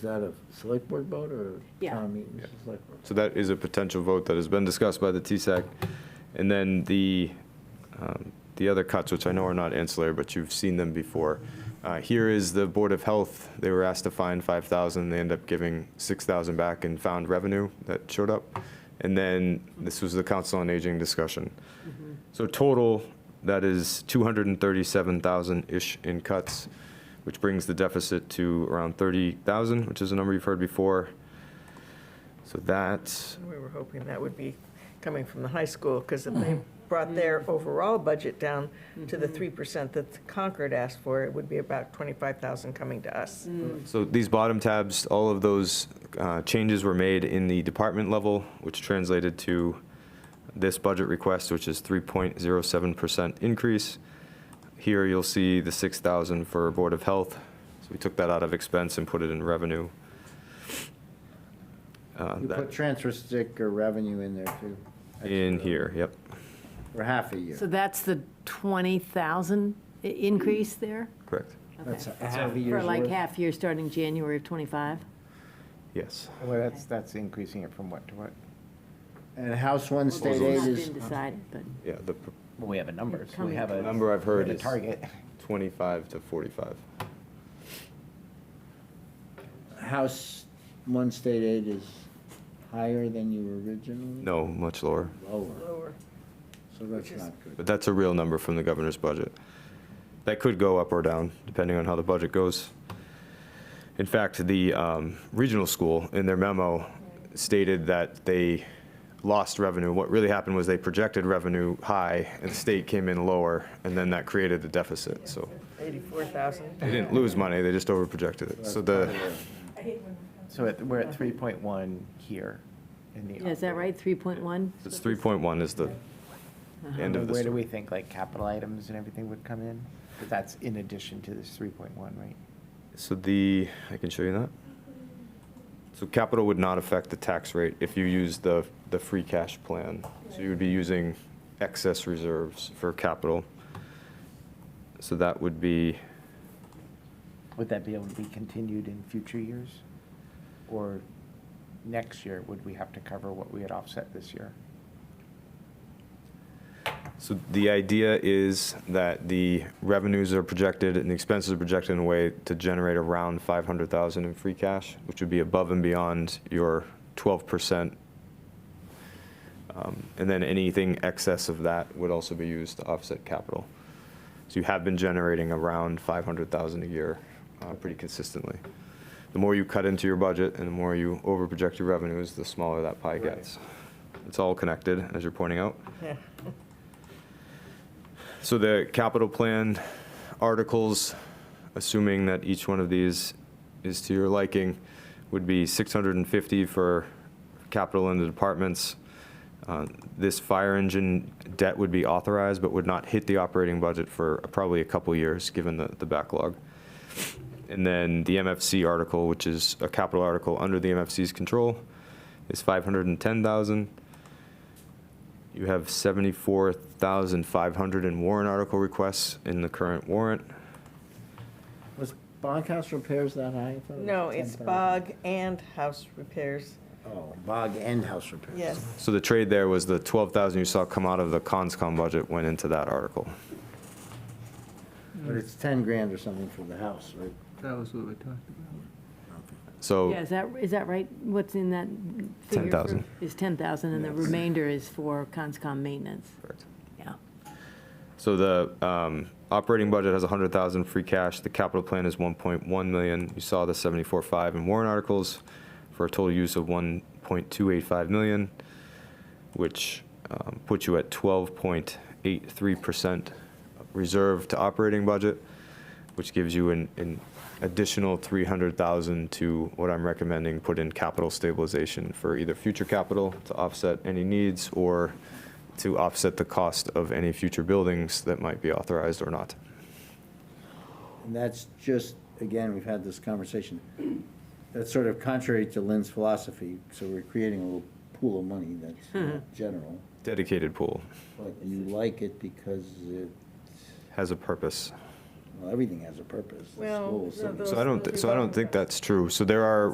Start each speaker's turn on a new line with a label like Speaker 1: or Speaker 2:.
Speaker 1: that a select board vote or
Speaker 2: Yeah.
Speaker 1: town meeting? Select board.
Speaker 3: So that is a potential vote that has been discussed by the TSAC. And then the, um, the other cuts, which I know are not ancillary, but you've seen them before. Uh, Here is the Board of Health. They were asked to find 5,000. They end up giving 6,000 back in found revenue that showed up. And then this was the Council on Aging discussion. So total, that is 237,000-ish in cuts, which brings the deficit to around 30,000, which is a number you've heard before. So that,
Speaker 4: We were hoping that would be coming from the high school, because if they brought their overall budget down to the 3% that Concord asked for, it would be about 25,000 coming to us.
Speaker 3: so these bottom tabs, all of those uh, changes were made in the department level, which translated to this budget request, which is 3.07% increase. Here, you'll see the 6,000 for Board of Health. So we took that out of expense and put it in revenue. Uh,
Speaker 1: You
Speaker 3: that-
Speaker 1: put transfer sticker revenue in there too.
Speaker 3: In here, yep.
Speaker 1: For half a year.
Speaker 2: So that's the 20,000 i- increase there?
Speaker 3: Correct.
Speaker 1: That's
Speaker 2: Okay.
Speaker 1: a half a
Speaker 2: For
Speaker 1: year's
Speaker 2: like
Speaker 1: worth.
Speaker 2: half year, starting January of '25?
Speaker 3: Yes.
Speaker 5: Well, that's, that's increasing it from what to what?
Speaker 1: And House One
Speaker 2: It's
Speaker 1: State Aid
Speaker 2: not been
Speaker 1: is,
Speaker 2: decided, but
Speaker 3: Yeah, the
Speaker 5: Well, we have a number, so we
Speaker 2: Coming
Speaker 5: have a.
Speaker 3: number I've heard
Speaker 5: we have
Speaker 3: is
Speaker 5: A target.
Speaker 3: 25 to 45.
Speaker 1: House One State Aid is higher than you originally?
Speaker 3: No, much lower.
Speaker 1: Lower,
Speaker 4: Lower.
Speaker 1: so that's
Speaker 4: Which is-
Speaker 1: not good.
Speaker 3: But that's a real number from the governor's budget. That could go up or down, depending on how the budget goes. In fact, the um, regional school, in their memo, stated that they lost revenue. What really happened was they projected revenue high, and the state came in lower, and then that created the deficit. So
Speaker 4: 84,000.
Speaker 3: they didn't lose money, they just overprojected it. So the,
Speaker 5: So it- we're at three point one here in the.
Speaker 2: Yeah, is that right, 3.1?
Speaker 3: it's 3.1 is the
Speaker 2: Uh-huh.
Speaker 3: end of the
Speaker 5: Where do
Speaker 3: story.
Speaker 5: we think like capital items and everything would come in? But that's in addition to this three point one, right?
Speaker 3: So the, I can show you that. So capital would not affect the tax rate if you use the, the free cash plan. So you would be using excess reserves for capital. So that would be,
Speaker 5: Would that be able to be continued in future years? Or next year, would we have to cover what we had offset this year?
Speaker 3: so the idea is that the revenues are projected and the expenses are projected in a way to generate around 500,000 in free cash, which would be above and beyond your 12%. Um, And then anything excess of that would also be used to offset capital. So you have been generating around 500,000 a year uh, pretty consistently. The more you cut into your budget and the more you overproject your revenues, the smaller that pie
Speaker 5: Right.
Speaker 3: gets. It's all connected, as you're pointing out.
Speaker 4: Yeah.
Speaker 3: So the capital plan articles, assuming that each one of these is to your liking, would be 650 for capital in the departments. Uh, This fire engine debt would be authorized, but would not hit the operating budget for probably a couple years, given the the backlog. And then the MFC article, which is a capital article under the MFC's control, is 510,000. You have 74,500 in warrant article requests in the current warrant.
Speaker 1: Was bunkhouse repairs that high? I thought it was
Speaker 4: No, it's
Speaker 1: 10,000.
Speaker 4: bog and house repairs.
Speaker 1: Oh, bog and house repairs.
Speaker 4: Yes.
Speaker 3: So the trade there was the 12,000 you saw come out of the conscom budget went into that article.
Speaker 1: But it's ten grand or something for the house, right?
Speaker 6: That was what we talked about.
Speaker 3: So
Speaker 2: Yeah, is that, is that right? What's in that figure? for-
Speaker 3: 10,000.
Speaker 2: Is 10,000, and the remainder is for CONSCOM maintenance?
Speaker 3: Correct.
Speaker 2: Yeah.
Speaker 3: So the um, operating budget has 100,000 free cash, the capital plan is 1.1 million. You saw the 74.5 in warrant articles for a total use of 1.285 million, which um, puts you at 12.83% reserve to operating budget, which gives you an- an additional 300,000 to what I'm recommending, put in capital stabilization for either future capital to offset any needs or to offset the cost of any future buildings that might be authorized or not.
Speaker 1: And that's just, again, we've had this conversation, that's sort of contrary to Lynn's philosophy, so we're creating a little pool of money that's not general,
Speaker 3: Dedicated pool
Speaker 1: but you like it because it,
Speaker 3: has a purpose.
Speaker 1: well, everything has a purpose. The
Speaker 4: Well,
Speaker 1: schools,
Speaker 4: no,
Speaker 1: and-
Speaker 4: those-
Speaker 3: So I don't, so I don't think that's true. So there are